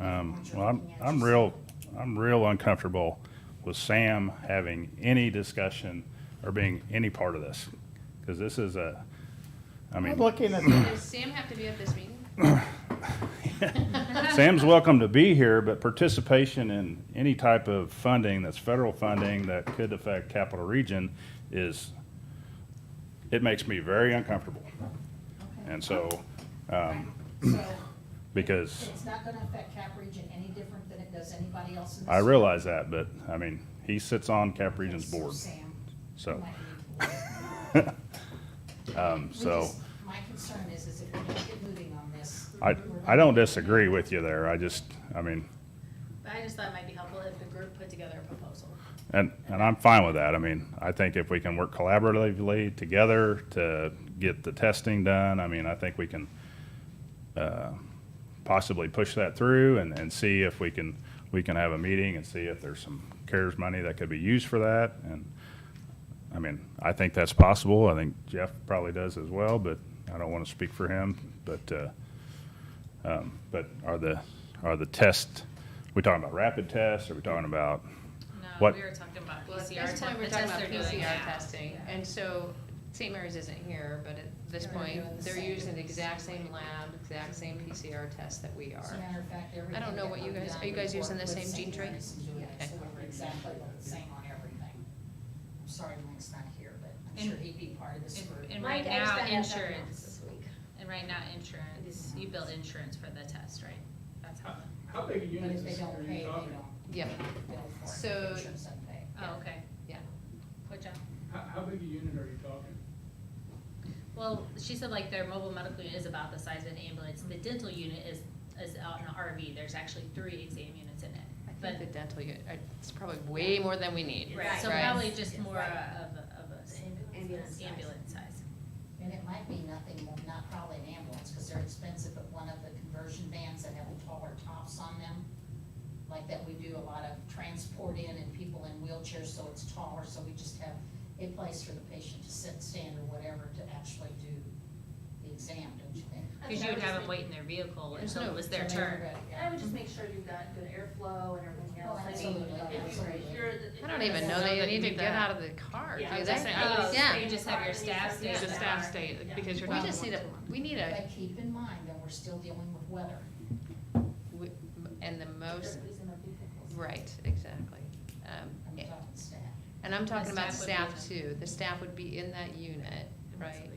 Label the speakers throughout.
Speaker 1: Um, well, I'm, I'm real, I'm real uncomfortable with Sam having any discussion or being any part of this. Cause this is a, I
Speaker 2: I'm
Speaker 1: mean,
Speaker 2: looking at,
Speaker 3: Does Sam have to be at this meeting?
Speaker 1: Sam's welcome to be here, but participation in any type of funding that's federal funding that could affect Capital Region is, it makes me very uncomfortable. And so, um,
Speaker 4: So
Speaker 1: because
Speaker 4: it's not gonna affect Cap Region any different than it does anybody else in this.
Speaker 1: I realize that, but I mean, he sits on Cap
Speaker 4: Okay,
Speaker 1: Region's
Speaker 4: so
Speaker 1: board,
Speaker 4: Sam,
Speaker 1: so.
Speaker 4: you might need to-
Speaker 1: Um,
Speaker 4: we
Speaker 1: so
Speaker 4: just- My concern is, is if we don't get moving on this.
Speaker 1: I,
Speaker 4: we're
Speaker 1: I don't
Speaker 4: gonna-
Speaker 1: disagree with you there. I just, I mean,
Speaker 5: But I just thought it might be helpful if the group put together a proposal.
Speaker 1: and, and I'm fine with that. I mean, I think if we can work collaboratively together to get the testing done, I mean, I think we can, uh, possibly push that through and, and see if we can, we can have a meeting and see if there's some CARES money that could be used for that. And, I mean, I think that's possible. I think Jeff probably does as well, but I don't want to speak for him. But, uh, um, but are the, are the tests, we talking about rapid tests? Are we talking about?
Speaker 6: No,
Speaker 1: What-
Speaker 6: we were talking about
Speaker 3: Well, at
Speaker 6: PCR
Speaker 3: this
Speaker 6: test,
Speaker 3: point,
Speaker 6: the
Speaker 3: we're
Speaker 6: tests
Speaker 3: talking
Speaker 6: they're
Speaker 3: about
Speaker 6: doing
Speaker 3: PCR
Speaker 6: now.
Speaker 3: testing, and so St. Mary's isn't here, but at this
Speaker 4: They're
Speaker 3: point,
Speaker 4: doing the
Speaker 3: they're
Speaker 4: same.
Speaker 3: using the exact same lab, exact same PCR test that we
Speaker 4: As a
Speaker 3: are.
Speaker 4: matter of fact, everything.
Speaker 3: know
Speaker 4: that
Speaker 3: what you
Speaker 4: we've
Speaker 3: guys-
Speaker 4: done,
Speaker 3: are you
Speaker 4: we've
Speaker 3: guys using
Speaker 4: worked
Speaker 3: the
Speaker 4: with
Speaker 3: same
Speaker 4: St.
Speaker 3: gene tree?
Speaker 4: Mary's and doing it,
Speaker 3: Okay.
Speaker 4: So we're exactly the same on everything. I'm sorry Link's not here, but I'm
Speaker 6: And-
Speaker 4: sure he'd be part of this
Speaker 6: and-
Speaker 4: group.
Speaker 6: and
Speaker 7: My
Speaker 6: right
Speaker 7: dad's
Speaker 6: now,
Speaker 7: gonna have that
Speaker 6: insurance.
Speaker 7: this week.
Speaker 6: And right now, insurance, you build insurance for the test, right? That's how,
Speaker 5: Oh,
Speaker 6: the-
Speaker 8: How big
Speaker 4: But
Speaker 8: a unit
Speaker 4: if
Speaker 8: is
Speaker 4: they
Speaker 8: this?
Speaker 4: don't
Speaker 8: Are
Speaker 4: pay, they
Speaker 8: you
Speaker 4: don't.
Speaker 8: talking,
Speaker 3: Yeah.
Speaker 4: they don't bill for it.
Speaker 3: So-
Speaker 4: Insurance doesn't pay.
Speaker 6: oh, okay.
Speaker 3: Yeah.
Speaker 6: Which, uh,
Speaker 8: how, how big a unit are you talking?
Speaker 6: well, she said like their mobile medical unit is about the size of an ambulance. The dental unit is, is out in an RV. There's actually three exam units in it.
Speaker 3: I
Speaker 6: But,
Speaker 3: think the dental, unit- I- it's probably way more than we need.
Speaker 7: Right.
Speaker 6: so
Speaker 3: Right.
Speaker 6: probably just more of a, of a s-
Speaker 7: Ambulance size.
Speaker 6: ambulance size.
Speaker 4: And it might be nothing, more- not probably an ambulance, because they're expensive, but one of the conversion vans that have taller tops on them, like that we do a lot of transport in and people in wheelchairs, so it's taller, so we just have a place for the patient to sit, stand, or whatever to actually do the exam, don't you think?
Speaker 6: Cause you would have them wait in their vehicle
Speaker 3: There's
Speaker 6: until
Speaker 3: no-
Speaker 6: it was their
Speaker 4: So they're
Speaker 6: turn.
Speaker 4: ready, yeah.
Speaker 7: I would just make sure you've got good airflow and everything
Speaker 4: Oh,
Speaker 7: else. I mean,
Speaker 4: absolutely,
Speaker 7: if you're-
Speaker 4: absolutely.
Speaker 7: you're the-
Speaker 3: I don't even know
Speaker 6: that
Speaker 3: they
Speaker 6: you
Speaker 3: need to
Speaker 6: do
Speaker 3: get
Speaker 6: that.
Speaker 3: out of the car, do
Speaker 7: Yeah,
Speaker 3: they?
Speaker 7: I was gonna say, I would
Speaker 3: Yeah.
Speaker 7: say
Speaker 6: You Oh, just have your staff stay
Speaker 7: Yeah.
Speaker 3: The
Speaker 6: in
Speaker 3: staff
Speaker 6: car.
Speaker 3: stay,
Speaker 7: Yeah.
Speaker 3: because you're
Speaker 7: We
Speaker 3: not.
Speaker 7: just
Speaker 3: the
Speaker 7: need
Speaker 3: one- We need a,
Speaker 4: But keep in mind that we're still dealing with weather.
Speaker 3: we- and the most,
Speaker 7: Everybody's in their vehicles.
Speaker 3: right, exactly. Um,
Speaker 4: I'm talking staff.
Speaker 3: And I'm talking about
Speaker 6: staff would
Speaker 3: staff
Speaker 6: be
Speaker 3: too, the staff would be in that unit, right?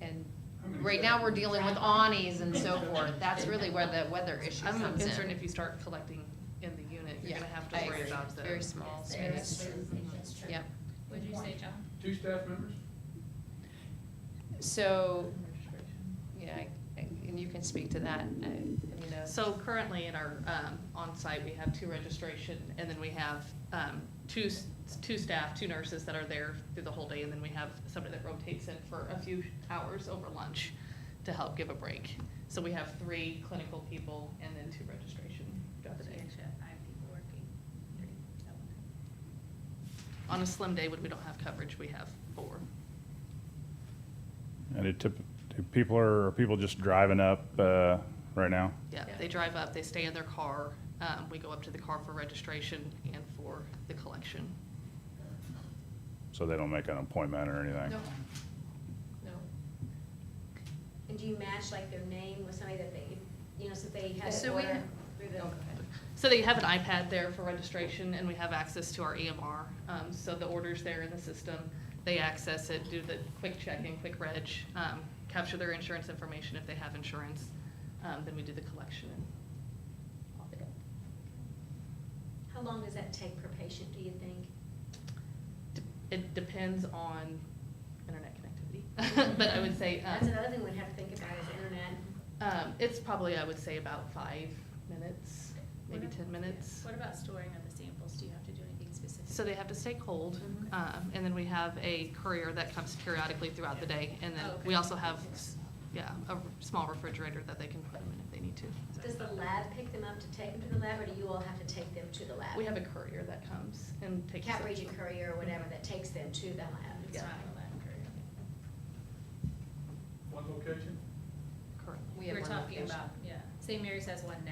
Speaker 3: And
Speaker 8: How many
Speaker 3: right
Speaker 8: staff
Speaker 3: now,
Speaker 8: are
Speaker 3: we're
Speaker 8: you-
Speaker 3: dealing with awnings and so forth, that's really where the weather issue
Speaker 6: I'm
Speaker 3: comes in.
Speaker 6: concerned
Speaker 5: If you start collecting in the unit, you're
Speaker 3: Yeah,
Speaker 5: gonna have
Speaker 3: I
Speaker 5: to worry
Speaker 3: agree.
Speaker 5: about the.
Speaker 3: Very small
Speaker 4: Yes,
Speaker 3: space,
Speaker 4: That's true, that's true.
Speaker 3: yep.
Speaker 6: Would you say, John?
Speaker 8: Two staff members?
Speaker 3: So, yeah, I- and you can speak to that, I, I mean, uh,
Speaker 5: So currently in our, um, on-site, we have two registration, and then we have, um, two, s- two staff, two nurses that are there through the whole day, and then we have somebody that rotates in for a few hours over lunch to help give a break. So we have three clinical people and then two registration throughout the
Speaker 6: So you
Speaker 5: day.
Speaker 6: actually have five people working, three, is that what?
Speaker 5: On a slim day, when we don't have coverage, we have four.
Speaker 1: And it tip, do people are, are people just driving up, uh, right now?
Speaker 5: Yeah,
Speaker 6: Yeah.
Speaker 5: they drive up, they stay in their car, um, we go up to the car for registration and for the collection.
Speaker 1: So they don't make an appointment or anything?
Speaker 3: No. no,
Speaker 7: And do you match like their name with somebody that they, you know, so they have.
Speaker 3: So we
Speaker 7: order
Speaker 3: have-
Speaker 7: through the-
Speaker 5: So they have an iPad there for registration, and we have access to our EMR. Um, so the order's there in the system. They access it, do the quick check-in, quick reg, um, capture their insurance information if they have insurance. Um, then we do the collection and off they go.
Speaker 7: How long does that take per patient, do you think?
Speaker 5: De- It depends on internet connectivity, but I would say,
Speaker 7: That's
Speaker 5: um,
Speaker 7: another thing we have to think about is internet.
Speaker 5: um, it's probably, I would say about five minutes, maybe
Speaker 6: What ab-
Speaker 5: ten minutes.
Speaker 6: What about storing of the samples? Do you have to do anything specific?
Speaker 5: So they have to stay cold,
Speaker 6: Mhm.
Speaker 5: um, and then we have a courier that comes periodically throughout the day, and then
Speaker 6: Oh, okay.
Speaker 5: we also have, s- yeah, a r- small refrigerator that they can put them in if they need to.
Speaker 7: Does the lab pick them up to take them to the lab, or do you all have to take them to the lab?
Speaker 5: We have a courier that comes and takes.
Speaker 7: Cap
Speaker 5: them.
Speaker 7: Region Courier or whatever that takes them to the lab.
Speaker 6: It's
Speaker 5: Yeah.
Speaker 6: not a lab courier.
Speaker 8: One location?
Speaker 5: Currently.
Speaker 3: we have
Speaker 6: We're
Speaker 3: one
Speaker 6: talking
Speaker 3: location.
Speaker 6: about, yeah, St. Mary's has one now.